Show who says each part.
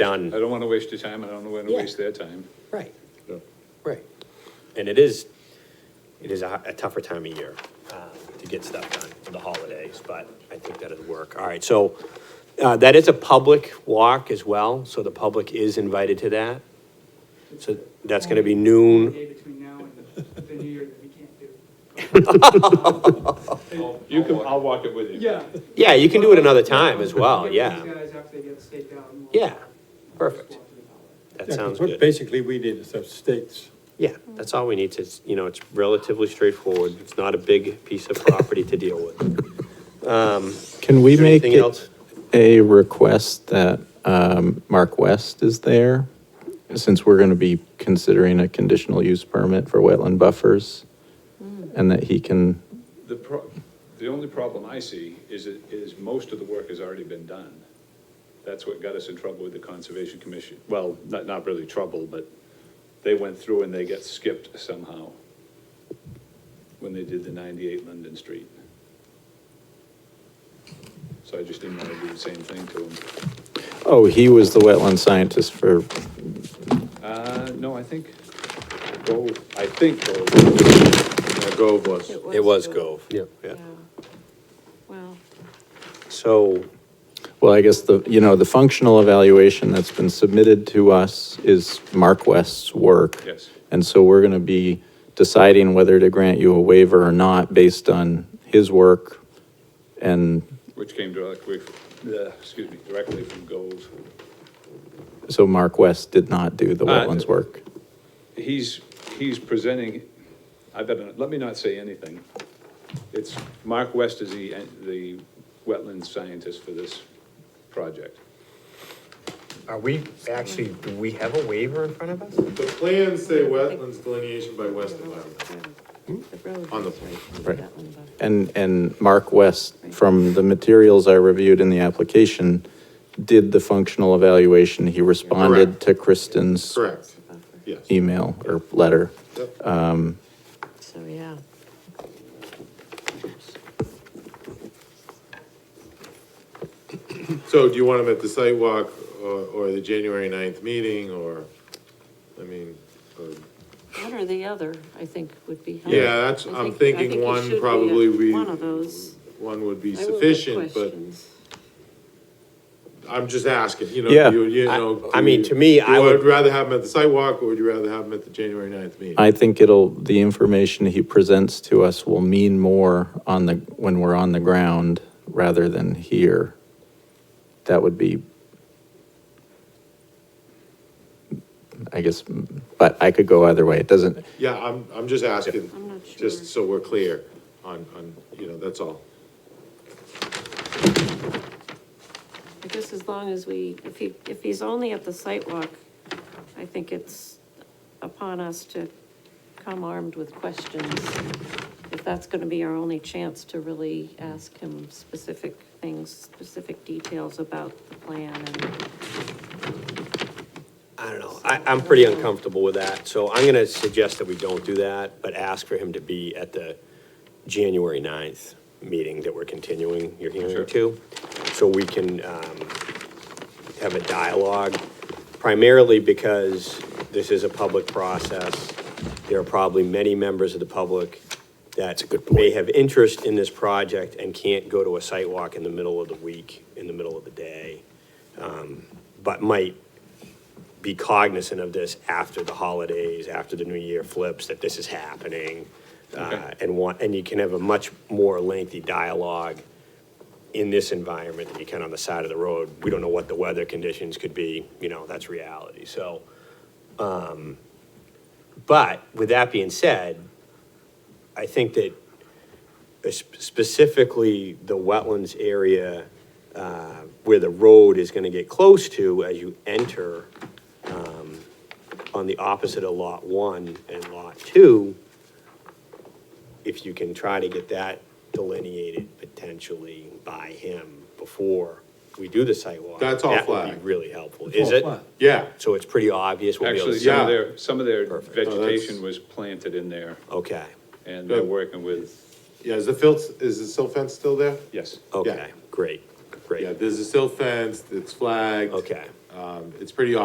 Speaker 1: done.
Speaker 2: I don't want to waste your time, and I don't want to
Speaker 1: Yeah.
Speaker 2: waste their time.
Speaker 1: Right,
Speaker 2: Yeah.
Speaker 1: right. And it is, it is a a tougher time of year uh, to get stuff done for the holidays, but I think that'll work. All right, so uh, that is a public walk as well, so the public is invited to that. So that's going to be noon.
Speaker 3: Day between now and the- the new year that we can't do.
Speaker 2: You can, I'll walk it with you.
Speaker 3: Yeah.
Speaker 1: Yeah, you can do it another time as well,
Speaker 3: Get
Speaker 1: yeah.
Speaker 3: These guys after they get staked out. and we'll-
Speaker 1: Yeah,
Speaker 3: we'll
Speaker 1: perfect.
Speaker 3: just walk through the hallway.
Speaker 1: That
Speaker 4: Yeah, 'cause
Speaker 1: sounds
Speaker 4: what
Speaker 1: good.
Speaker 4: Basically, we did is have states.
Speaker 1: Yeah, that's all we need to, you know, it's relatively straightforward. It's not a big piece of property to deal with.
Speaker 5: Can we
Speaker 1: Is there
Speaker 5: make
Speaker 1: anything
Speaker 5: it
Speaker 1: else?
Speaker 5: a request that um, Mark West is there? Since we're going to be considering a conditional use permit for wetland buffers? And that he can,
Speaker 2: The pro, the only problem I see is, it is most of the work has already been done. That's what got us in trouble with the Conservation Commission. Well, not, not really trouble, but they went through and they got skipped somehow when they did the ninety-eight London Street. So I just didn't want to do the same thing to them.
Speaker 5: oh, he was the wetland scientist for,
Speaker 2: Uh, no, I think, Go, I think Gove. Gove was.
Speaker 1: It was Gove.
Speaker 5: Yeah.
Speaker 1: Yeah.
Speaker 6: Well,
Speaker 1: So,
Speaker 5: well, I guess the, you know, the functional evaluation that's been submitted to us is Mark West's work.
Speaker 2: Yes.
Speaker 5: And so we're going to be deciding whether to grant you a waiver or not based on his work and
Speaker 2: Which came directly, f- uh, excuse me, directly from Gove.
Speaker 5: So Mark West did not do the
Speaker 2: Uh,
Speaker 5: wetlands work.
Speaker 2: He's, he's presenting, I better, let me not say anything. It's, Mark West is the, the wetland scientist for this project.
Speaker 7: Are we, actually, do we have a waiver in front of us?
Speaker 8: The plans say wetlands delineation by west and wetland.
Speaker 7: On the-
Speaker 5: Hmm? Right. And, and Mark West, from the materials I reviewed in the application, did the functional evaluation. He responded to Kristen's
Speaker 8: Correct, yes.
Speaker 5: email or letter.
Speaker 6: So, yeah.
Speaker 8: So do you want them at the site walk or, or the January 9th meeting or, I mean, or-
Speaker 6: One or the other, I think, would be helpful.
Speaker 8: yeah, that's,
Speaker 6: I
Speaker 8: I'm
Speaker 6: think- I think
Speaker 8: thinking
Speaker 6: it
Speaker 8: one
Speaker 6: should be a-
Speaker 8: probably we,
Speaker 6: One of those.
Speaker 8: one would be
Speaker 6: I will get
Speaker 8: sufficient, but
Speaker 6: questions.
Speaker 8: I'm just asking, you know,
Speaker 5: Yeah,
Speaker 8: you, you know.
Speaker 1: I- I
Speaker 8: do
Speaker 1: mean,
Speaker 8: you-
Speaker 1: to me,
Speaker 8: do
Speaker 1: I
Speaker 8: you
Speaker 1: would-
Speaker 8: rather have them at the site walk or would you rather have them at the January 9th meeting?
Speaker 5: I think it'll, the information he presents to us will mean more on the, when we're on the ground rather than here. That would be, I guess, but I could go either way. It doesn't,
Speaker 8: Yeah, I'm, I'm just asking.
Speaker 6: I'm not sure.
Speaker 8: Just so we're clear on, on, you know, that's all.
Speaker 6: I guess as long as we, if he, if he's only at the site walk, I think it's upon us to come armed with questions. If that's gonna be our only chance to really ask him specific things, specific details about the plan and.
Speaker 1: I don't know, I, I'm pretty uncomfortable with that, so I'm gonna suggest that we don't do that, but ask for him to be at the January ninth meeting that we're continuing your hearing to, so we can, um, have a dialogue, primarily because this is a public process. There are probably many members of the public that may have interest in this project and can't go to a site walk in the middle of the week, in the middle of the day, um, but might be cognizant of this after the holidays, after the new year flips, that this is happening. uh, And want, and you can have a much more lengthy dialogue in this environment than you can on the side of the road. We don't know what the weather conditions could be, you know, that's reality, so. um, But with that being said, I think that uh, sp- specifically the wetlands area uh, where the road is going to get close to as you enter um, on the opposite of Lot 1 and Lot 2, if you can try to get that delineated potentially by him before we do the site walk.
Speaker 8: That's all
Speaker 1: That would
Speaker 8: flagged.
Speaker 1: be really helpful, is it?
Speaker 8: Yeah,
Speaker 1: So it's pretty obvious we'll be able to
Speaker 2: Actually,
Speaker 1: see?
Speaker 2: some
Speaker 8: Yeah.
Speaker 2: of their, some of their
Speaker 1: Perfect.
Speaker 8: Oh, that's-
Speaker 2: vegetation was planted in there,
Speaker 1: Okay,
Speaker 2: and they're
Speaker 8: Good.
Speaker 2: working with,
Speaker 8: yeah, is the filth, is the silt fence still there?
Speaker 2: yes.
Speaker 1: okay, great,
Speaker 8: Yeah,
Speaker 1: great,
Speaker 8: there's a silt fence, it's flagged.
Speaker 1: okay.
Speaker 8: Um, It's pretty